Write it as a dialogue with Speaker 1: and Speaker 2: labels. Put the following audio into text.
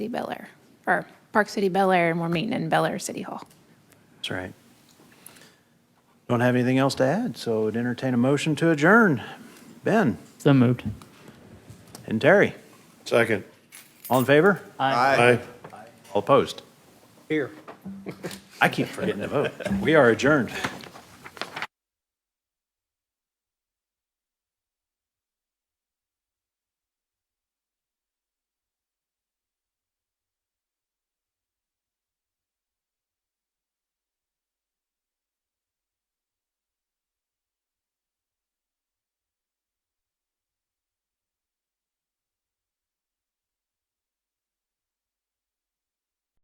Speaker 1: City Bel Air, or Park City Bel Air, and we're meeting in Bel Air City Hall.
Speaker 2: That's right. Don't have anything else to add, so would entertain a motion to adjourn. Ben
Speaker 3: So moved.
Speaker 2: and Terry,
Speaker 4: Second.
Speaker 2: all in favor?
Speaker 4: Aye.
Speaker 2: All opposed? Here. I keep forgetting to vote. We are adjourned.